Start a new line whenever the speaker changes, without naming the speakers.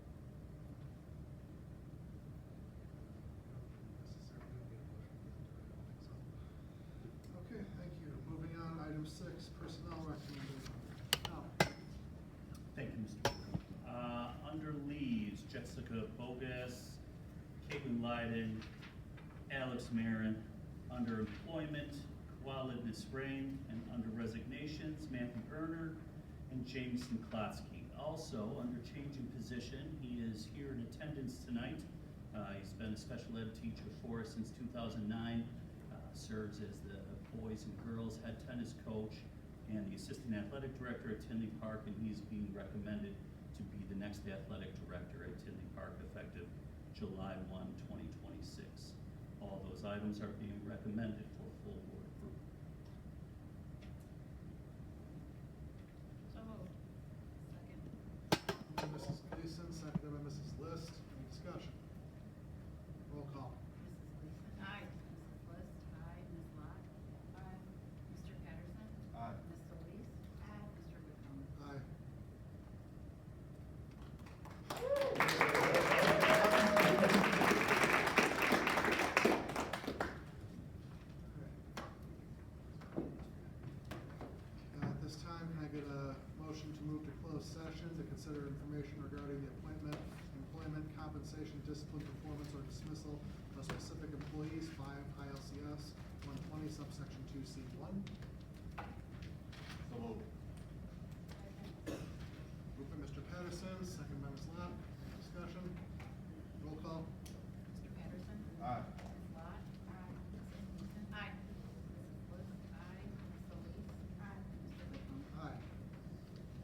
Uh, Cook, Bogus, Caitlin Lyden, Alex Marin, under employment, Walid Nisrain, and under resignations, Matthew Erner and Jameson Klotzky. Also, under change in position, he is here in attendance tonight. Uh, he's been a special ed teacher for us since two thousand nine, uh, serves as the boys and girls head tennis coach and the assistant athletic director at Tinley Park, and he's being recommended to be the next athletic director at Tinley Park effective July 1, 2026. All those items are being recommended for full board approval.
So moved. Second.
By Mrs. Gleason, seconded by Mrs. List. Any discussion? Roll call.
Mrs. Gleason.
Aye.
Mrs. List. Aye. Ms. Lot. Aye. Mr. Patterson.
Aye.
Ms. Solis. Aye. Mr. McCombs.
Aye. Uh, At this time, can I get a motion to move to closed session to consider information regarding the appointment, employment, compensation, discipline, performance, or dismissal of specific employees, five ILCS one twenty subsection two C one?
So moved.